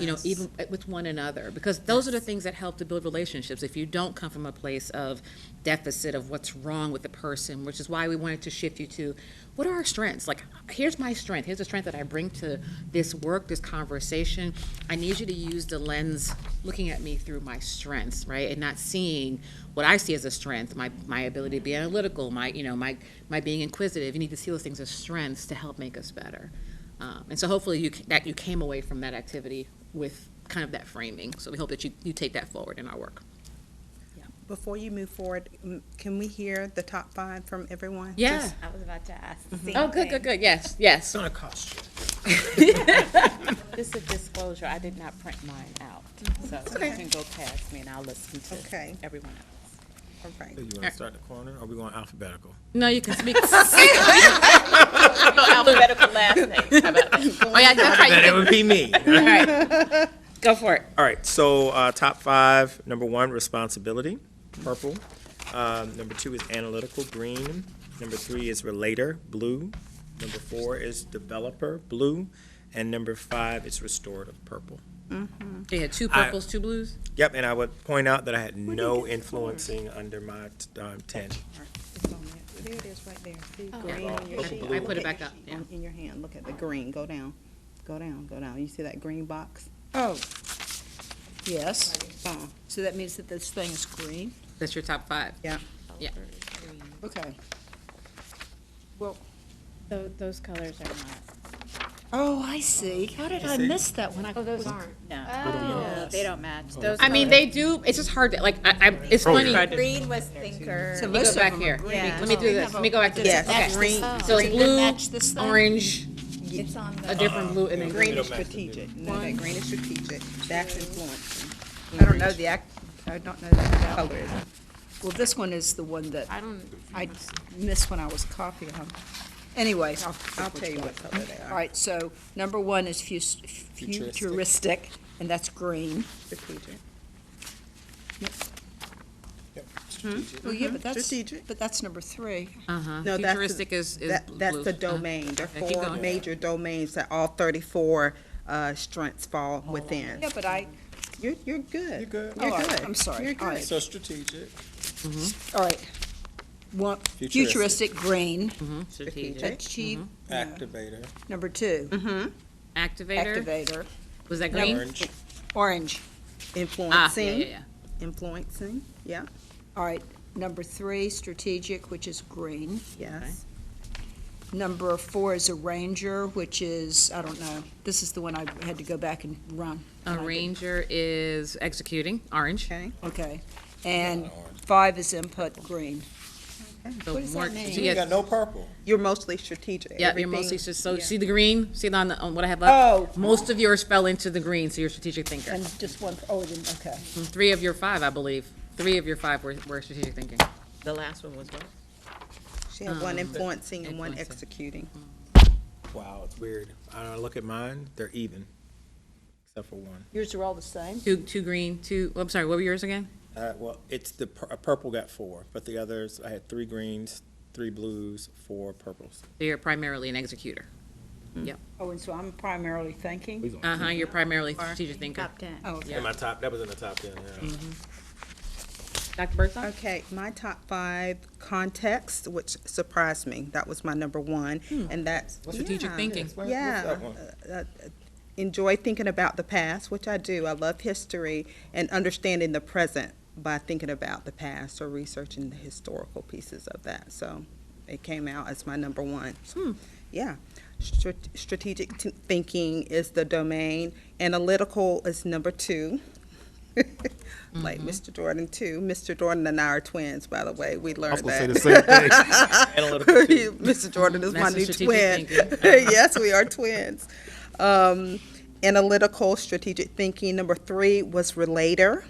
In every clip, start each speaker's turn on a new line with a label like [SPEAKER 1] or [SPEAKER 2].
[SPEAKER 1] you know,
[SPEAKER 2] Yes.
[SPEAKER 1] even with one another, because those are the things that help to build relationships. If you don't come from a place of deficit of what's wrong with the person, which is why we wanted to shift you to what are our strengths? Like, here's my strength. Here's the strength that I bring to this work, this conversation. I need you to use the lens looking at me through my strengths, right? And not seeing what I see as a strength, my, my ability to be analytical, my, you know, my, my being inquisitive. You need to see those things as strengths to help make us better. Um, and so hopefully you, c- that you came away from that activity with kind of that framing. So we hope that you, you take that forward in our work.
[SPEAKER 2] Before you move forward, m- can we hear the top five from everyone?
[SPEAKER 1] Yeah.
[SPEAKER 2] Just-
[SPEAKER 3] I was about to ask. the same
[SPEAKER 1] Oh, good,
[SPEAKER 3] thing.
[SPEAKER 1] good, good. Yes, yes.
[SPEAKER 4] gonna cost you.
[SPEAKER 3] Just a disclosure, I did not print mine out, so
[SPEAKER 2] Okay.
[SPEAKER 3] you can go past me and I'll listen
[SPEAKER 2] Okay.
[SPEAKER 3] to everyone else.
[SPEAKER 2] All right.
[SPEAKER 4] You wanna start in the corner, or we going alphabetical?
[SPEAKER 1] No, you can speak.
[SPEAKER 3] Alphabetical last name, how about that?
[SPEAKER 1] Oh, yeah, that's right.
[SPEAKER 4] That it would be me.
[SPEAKER 1] All right. Go for it.
[SPEAKER 4] All right, so, uh, top five, number one, responsibility, purple. Um, number two is analytical, green. Number three is relator, blue. Number four is developer, blue. And number five is restorative, purple.
[SPEAKER 1] You had two
[SPEAKER 4] I-
[SPEAKER 1] purples, two blues.
[SPEAKER 4] Yep, and I would point out that I had no influencing under my, um, ten.
[SPEAKER 2] It's on there. There it is, right there. See, green on your
[SPEAKER 4] I-
[SPEAKER 2] sheet.
[SPEAKER 4] I put
[SPEAKER 1] it
[SPEAKER 2] Look at
[SPEAKER 1] back
[SPEAKER 2] your
[SPEAKER 1] up,
[SPEAKER 2] sheet
[SPEAKER 1] Oh. yeah.
[SPEAKER 2] on- In your hand, look at the green, go down, go down, go down. You see that green box? Oh.
[SPEAKER 5] Yes,
[SPEAKER 2] Oh,
[SPEAKER 5] so that means that this thing is green?
[SPEAKER 1] That's your top five.
[SPEAKER 2] yeah.
[SPEAKER 1] Yeah.
[SPEAKER 5] Okay.
[SPEAKER 3] Tho- Those colors are not,
[SPEAKER 5] Oh, I see. How did I miss that one? I
[SPEAKER 3] oh, those aren't, no,
[SPEAKER 5] Oh,
[SPEAKER 3] they don't match. Those
[SPEAKER 1] I mean,
[SPEAKER 3] colors-
[SPEAKER 1] they do. It's just hard to like. I, I it's
[SPEAKER 4] Oh,
[SPEAKER 1] funny.
[SPEAKER 4] yeah.
[SPEAKER 1] Let me
[SPEAKER 6] Green was thinker.
[SPEAKER 5] So
[SPEAKER 1] go
[SPEAKER 5] most
[SPEAKER 1] back
[SPEAKER 5] of them
[SPEAKER 1] here.
[SPEAKER 5] are
[SPEAKER 1] Let
[SPEAKER 5] green.
[SPEAKER 1] me-
[SPEAKER 6] Yeah.
[SPEAKER 1] Let me do this. Let me go back to this.
[SPEAKER 2] Yes,
[SPEAKER 1] Okay.
[SPEAKER 2] green.
[SPEAKER 1] So it's
[SPEAKER 5] Does it match this
[SPEAKER 1] blue,
[SPEAKER 5] thing?
[SPEAKER 1] orange,
[SPEAKER 6] It's on
[SPEAKER 1] a
[SPEAKER 6] the,
[SPEAKER 1] different blue, and then green.
[SPEAKER 2] Green is
[SPEAKER 4] Middle matches
[SPEAKER 2] strategic, no, that green is strategic, that's influencing. I don't know the act, I don't know the colors.
[SPEAKER 5] Well, this one is the one that
[SPEAKER 3] I don't,
[SPEAKER 5] I missed when I was copying them. Anyway, I'll,
[SPEAKER 2] I'll tell you what color they
[SPEAKER 5] all
[SPEAKER 2] are,
[SPEAKER 5] right, so number one is fus- futuristic, and that's green.
[SPEAKER 2] strategic.
[SPEAKER 1] Hmm?
[SPEAKER 5] Well, yeah, but that's,
[SPEAKER 2] strategic.
[SPEAKER 5] but that's number three.
[SPEAKER 1] Uh huh.
[SPEAKER 2] No, that's the-
[SPEAKER 1] Futuristic is is
[SPEAKER 2] That, that's
[SPEAKER 1] blue.
[SPEAKER 2] the
[SPEAKER 1] Uh-huh.
[SPEAKER 2] domain, there
[SPEAKER 1] Okay,
[SPEAKER 2] are
[SPEAKER 1] keep
[SPEAKER 2] four
[SPEAKER 1] going.
[SPEAKER 2] major domains that all thirty-four, uh, strengths fall within.
[SPEAKER 5] Yeah, but I,
[SPEAKER 2] You're, you're good. You're good.
[SPEAKER 5] All right, I'm sorry.
[SPEAKER 2] You're
[SPEAKER 5] All right.
[SPEAKER 2] good.
[SPEAKER 4] So strategic.
[SPEAKER 5] all right. One,
[SPEAKER 4] Futuristic.
[SPEAKER 5] futuristic, green,
[SPEAKER 1] Uh-huh. Strategic.
[SPEAKER 5] achieve,
[SPEAKER 4] Activator.
[SPEAKER 5] number two,
[SPEAKER 1] Activator.
[SPEAKER 5] activator,
[SPEAKER 1] Was that green?
[SPEAKER 4] Orange.
[SPEAKER 5] orange.
[SPEAKER 1] Ah, yeah, yeah,
[SPEAKER 2] Influencing,
[SPEAKER 1] yeah.
[SPEAKER 2] influencing, yeah,
[SPEAKER 5] All right, number three, strategic, which is green.
[SPEAKER 2] yes.
[SPEAKER 5] Number four is a ranger, which is, I don't know, this is the one I had to go back and run.
[SPEAKER 1] A ranger is executing, orange.
[SPEAKER 2] Okay,
[SPEAKER 5] Okay. And five is input, green.
[SPEAKER 1] So
[SPEAKER 5] What does that
[SPEAKER 1] more-
[SPEAKER 5] mean?
[SPEAKER 1] so you got-
[SPEAKER 4] no purple.
[SPEAKER 2] you're mostly strategic.
[SPEAKER 1] Yeah, you're mostly,
[SPEAKER 2] Everything-
[SPEAKER 1] just- so
[SPEAKER 2] yeah.
[SPEAKER 1] see the green, see it on the, on what I have left?
[SPEAKER 2] Oh.
[SPEAKER 1] Most of yours fell into the green, so you're a strategic thinker.
[SPEAKER 5] And just one, oh, then, okay.
[SPEAKER 1] And Three of your five, I believe, three of your five were, were strategic thinking.
[SPEAKER 7] The last one was what?
[SPEAKER 2] She had one influencing and one
[SPEAKER 1] um, influencing.
[SPEAKER 2] executing.
[SPEAKER 4] Wow, it's weird. I look at mine, they're even, except for one.
[SPEAKER 5] Yours are all the same?
[SPEAKER 1] Two, two green, two, oh, I'm sorry, what were yours again?
[SPEAKER 4] Uh, well, it's the, pur- uh, purple got four, but the others, I had three greens, three blues, four purples.
[SPEAKER 1] So you're primarily an executor.
[SPEAKER 5] Oh, and so I'm primarily thinking?
[SPEAKER 1] Uh-huh, you're primarily strategic thinker.
[SPEAKER 3] top ten.
[SPEAKER 5] Oh, okay.
[SPEAKER 1] Yeah.
[SPEAKER 4] In my top, that was in the top ten, yeah.
[SPEAKER 1] Dr. Birdsong?
[SPEAKER 2] Okay, my top five context, which surprised me, that was my number one, and that's.
[SPEAKER 1] Hmm. Strategic
[SPEAKER 2] yeah,
[SPEAKER 1] thinking.
[SPEAKER 2] Yeah. uh, uh, Enjoy thinking about the past, which I do. I love history and understanding the present by thinking about the past or researching the historical pieces of that. So it came out as my number one. Yeah. Strate- Strategic t- thinking is the domain. Analytical is number two. Like Mr. Jordan, too. Mr. Jordan and I are twins, by the way. We learned that.
[SPEAKER 4] Analytical two.
[SPEAKER 2] Mr. Jordan is my
[SPEAKER 1] That's the
[SPEAKER 2] new twin.
[SPEAKER 1] strategic
[SPEAKER 2] yes, we are twins. Um, analytical strategic thinking. Number three was relator,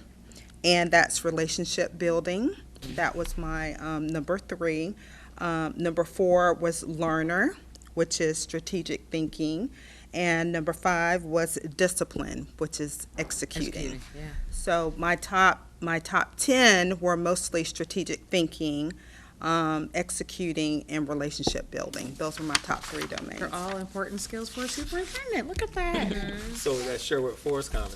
[SPEAKER 2] and that's relationship building. That was my um, number three. Um, number four was learner, which is strategic thinking. And number five was discipline, which is executing.
[SPEAKER 1] Executing, yeah.
[SPEAKER 2] So my top my top ten were mostly strategic thinking, um, executing, and relationship building. Those were my top three domains.
[SPEAKER 1] They're all important skills for a superintendent. Look at that.
[SPEAKER 4] So that Sherwood Forest comment.